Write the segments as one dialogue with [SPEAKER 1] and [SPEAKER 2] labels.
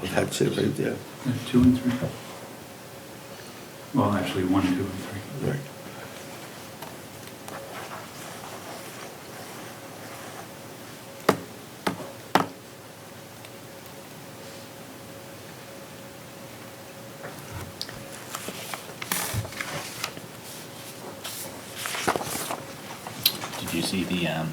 [SPEAKER 1] Well, that's it right there.
[SPEAKER 2] Yeah, Uh, Two and three. Well, actually, one, two, and three.
[SPEAKER 1] Right.
[SPEAKER 3] Did you see the, um,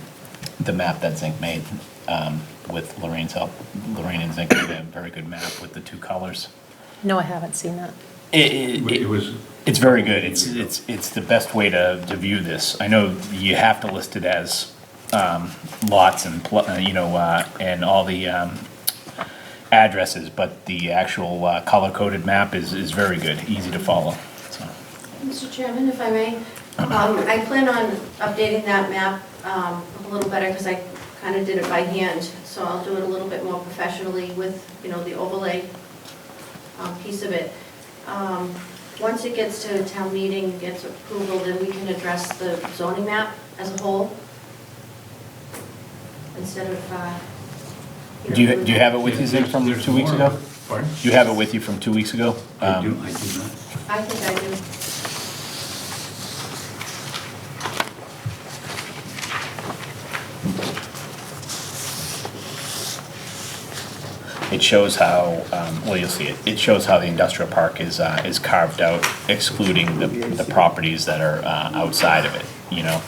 [SPEAKER 3] the map that Zink made, um, with Lorraine's help? Lorraine and Zink made a very good map with the two colors.
[SPEAKER 4] No, I haven't seen that.
[SPEAKER 3] It,
[SPEAKER 2] It was,
[SPEAKER 3] it's very good. It's, it's, it's the best way to, to view this. I know you have to list it as, um, lots and, pl- uh, you know, uh, and all the, um, addresses, but the actual, uh, color-coded map is, is very good, easy to follow, so.
[SPEAKER 5] Mr. Chairman, if I may, um, I plan on updating that map um, a little better because I kind of did it by hand. So I'll do it a little bit more professionally with, you know, the overlay um, piece of it. Um, Once it gets to town meeting, gets approval, then we can address the zoning map as a whole instead of. uh, know,
[SPEAKER 3] Do you, do you have Oh, it with you, Zink, from
[SPEAKER 2] There's
[SPEAKER 3] two weeks
[SPEAKER 2] more.
[SPEAKER 3] ago?
[SPEAKER 2] Pardon?
[SPEAKER 3] Do you have it with you from two weeks ago?
[SPEAKER 2] I
[SPEAKER 3] Um,
[SPEAKER 2] do, I do not.
[SPEAKER 5] I think I do.
[SPEAKER 3] It shows how, um, well, you'll see it, it shows how the industrial park is, uh, is carved out excluding the, the properties that are, uh, outside of it, you know?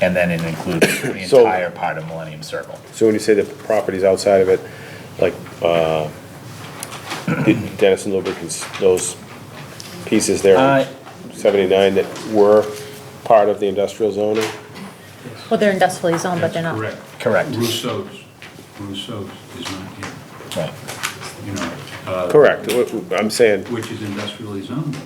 [SPEAKER 3] And then it includes the
[SPEAKER 6] So-
[SPEAKER 3] entire part of Millennium Circle.
[SPEAKER 6] So when you say the properties outside of it, like, uh, Dennis and Lubricants, those pieces there,
[SPEAKER 3] Uh,
[SPEAKER 6] seventy-nine that were part of the industrial zoning?
[SPEAKER 4] Well, they're industrially zoned, but they're not.
[SPEAKER 2] Correct.
[SPEAKER 3] Correct.
[SPEAKER 2] Rousseau's, Rousseau's is not here,
[SPEAKER 3] Right.
[SPEAKER 2] you know, uh,
[SPEAKER 6] Correct, What- I'm saying,
[SPEAKER 2] which is industrially zoned.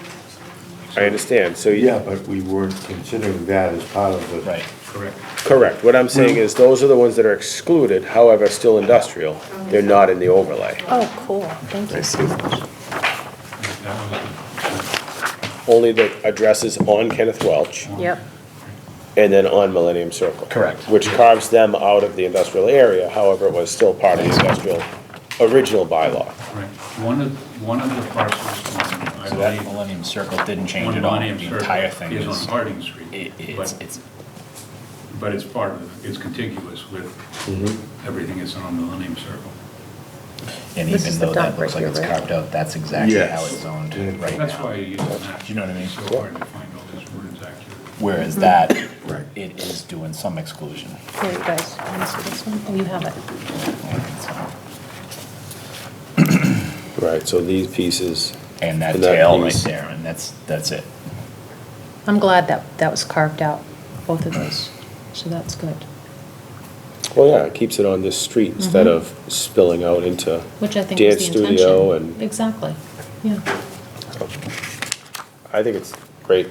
[SPEAKER 6] I understand, so,
[SPEAKER 1] Yeah,
[SPEAKER 6] you-
[SPEAKER 1] but we weren't considering that as part of the.
[SPEAKER 3] Right.
[SPEAKER 2] Correct.
[SPEAKER 6] correct, what I'm saying is, those are the ones that are excluded, however, still industrial, they're not in the overlay.
[SPEAKER 4] Oh, cool. Thank you so much.
[SPEAKER 2] That was-
[SPEAKER 6] Only the addresses on Kenneth Welch,
[SPEAKER 4] Yep.
[SPEAKER 6] and then on Millennium Circle.
[SPEAKER 3] Correct.
[SPEAKER 6] Which carves them out of the industrial area, however, it was still part of the industrial, original bylaw.
[SPEAKER 2] Right. One of, one of the parcels, on, I
[SPEAKER 3] So that
[SPEAKER 2] believe,
[SPEAKER 3] Millennium Circle didn't change
[SPEAKER 2] on
[SPEAKER 3] at all,
[SPEAKER 2] Millennium
[SPEAKER 3] the entire thing
[SPEAKER 2] Circle is on
[SPEAKER 3] is,
[SPEAKER 2] Harding Street.
[SPEAKER 3] it- it's,
[SPEAKER 2] but-
[SPEAKER 3] it's,
[SPEAKER 2] But it's part of, it's contiguous with
[SPEAKER 3] Mm-hmm.
[SPEAKER 2] everything that's on Millennium Circle.
[SPEAKER 3] and
[SPEAKER 4] This
[SPEAKER 3] even
[SPEAKER 4] is the
[SPEAKER 3] though that
[SPEAKER 4] dock right
[SPEAKER 3] looks like
[SPEAKER 4] here,
[SPEAKER 3] it's
[SPEAKER 4] right?
[SPEAKER 3] carved out, that's exactly how
[SPEAKER 1] Yes.
[SPEAKER 3] it's zoned
[SPEAKER 1] Yeah.
[SPEAKER 3] right now.
[SPEAKER 2] That's why you use the map.
[SPEAKER 3] Do you know what I mean?
[SPEAKER 2] It's so hard to find all these words accurately.
[SPEAKER 3] Whereas
[SPEAKER 4] Hmm.
[SPEAKER 3] that,
[SPEAKER 1] Right.
[SPEAKER 3] it is doing some exclusion.
[SPEAKER 4] Here, you guys. You wanna see this one? Oh, you have it.
[SPEAKER 6] Right, so these pieces,
[SPEAKER 3] And that
[SPEAKER 6] And that
[SPEAKER 3] tail right
[SPEAKER 6] piece.
[SPEAKER 3] there, and that's, that's it.
[SPEAKER 4] I'm glad that that was carved out, both of those. So that's good.
[SPEAKER 6] well, yeah, it keeps it on this street instead of spilling out into
[SPEAKER 4] Mm-hmm. Which I think
[SPEAKER 6] dance
[SPEAKER 4] is the
[SPEAKER 6] studio
[SPEAKER 4] intention.
[SPEAKER 6] and,
[SPEAKER 4] Exactly. Yeah.
[SPEAKER 6] I think it's great.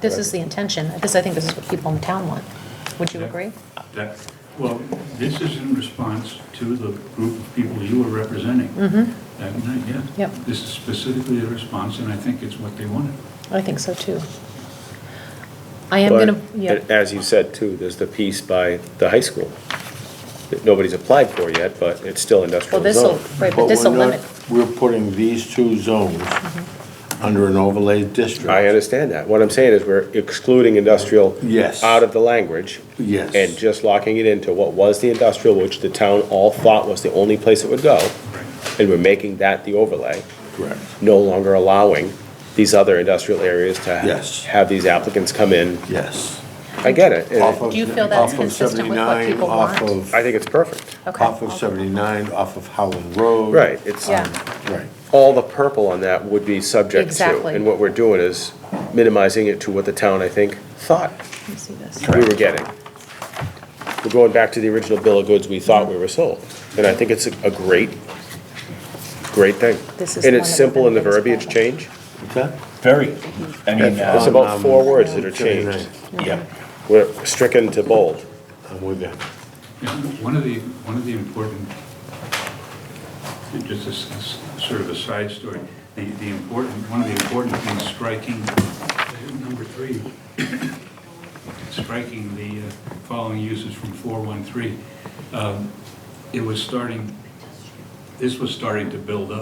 [SPEAKER 4] This is the intention. This, I think this is what people in town want. Would you agree?
[SPEAKER 2] That, well, this is in response to the group of people you were representing.
[SPEAKER 3] Mm.
[SPEAKER 4] Mm-hmm.
[SPEAKER 2] That night, yeah.
[SPEAKER 4] Yep.
[SPEAKER 2] This is specifically a response, and I think it's what they wanted.
[SPEAKER 4] I think so too. I am gonna,
[SPEAKER 6] But,
[SPEAKER 4] yeah.
[SPEAKER 6] and As you said too, there's the piece by the high school that nobody's applied for yet, but it's still
[SPEAKER 4] Well,
[SPEAKER 6] industrial
[SPEAKER 4] this'll,
[SPEAKER 6] zone.
[SPEAKER 4] right, but this'll
[SPEAKER 1] we're not-
[SPEAKER 4] limit. Mm-hmm.
[SPEAKER 1] We're putting these two zones under an overlay district.
[SPEAKER 6] I understand that. What I'm saying is we're excluding industrial
[SPEAKER 1] Yes.
[SPEAKER 6] out of the language.
[SPEAKER 1] Yes.
[SPEAKER 6] And just locking it into what was the industrial, which the town all thought was the only place it would go, and we're making that the overlay,
[SPEAKER 1] Correct.
[SPEAKER 6] no longer allowing these other industrial areas to
[SPEAKER 1] Yes.
[SPEAKER 6] have these applicants come in.
[SPEAKER 1] Yes.
[SPEAKER 6] I get it. and
[SPEAKER 1] Off of-
[SPEAKER 4] Do you feel that's
[SPEAKER 1] off of
[SPEAKER 4] consistent with what
[SPEAKER 1] 79,
[SPEAKER 4] people
[SPEAKER 1] off
[SPEAKER 4] want?
[SPEAKER 1] of-
[SPEAKER 6] I think it's perfect.
[SPEAKER 4] Okay.
[SPEAKER 1] Off of 79, off of Howland Road.
[SPEAKER 6] Right, it's,
[SPEAKER 4] Yeah.
[SPEAKER 1] Right.
[SPEAKER 6] all the purple on that would be subject to.
[SPEAKER 4] Exactly.
[SPEAKER 6] And what we're doing is minimizing it to what the town, I think, thought
[SPEAKER 4] Let me see this.
[SPEAKER 6] we were getting. We're going back to the original bill of goods we thought we were sold. And I think it's a a great, great thing.
[SPEAKER 4] This is
[SPEAKER 6] And
[SPEAKER 4] one
[SPEAKER 6] it's
[SPEAKER 4] of the
[SPEAKER 6] simple in the
[SPEAKER 4] benefits
[SPEAKER 6] verbiage
[SPEAKER 4] of-
[SPEAKER 6] change.
[SPEAKER 1] What's that?
[SPEAKER 3] Very, I mean,
[SPEAKER 6] It's
[SPEAKER 3] uh,
[SPEAKER 6] about four words that are
[SPEAKER 1] 79.
[SPEAKER 6] changed.
[SPEAKER 3] yeah,
[SPEAKER 6] We're stricken to bold.
[SPEAKER 1] I'm with you.
[SPEAKER 2] Yeah, One of the, one of the important, just a s- s- sort of a side story, the, the important, one of the important things striking, number three, striking the uh, following uses from 413, um, it was starting, this was starting to build up.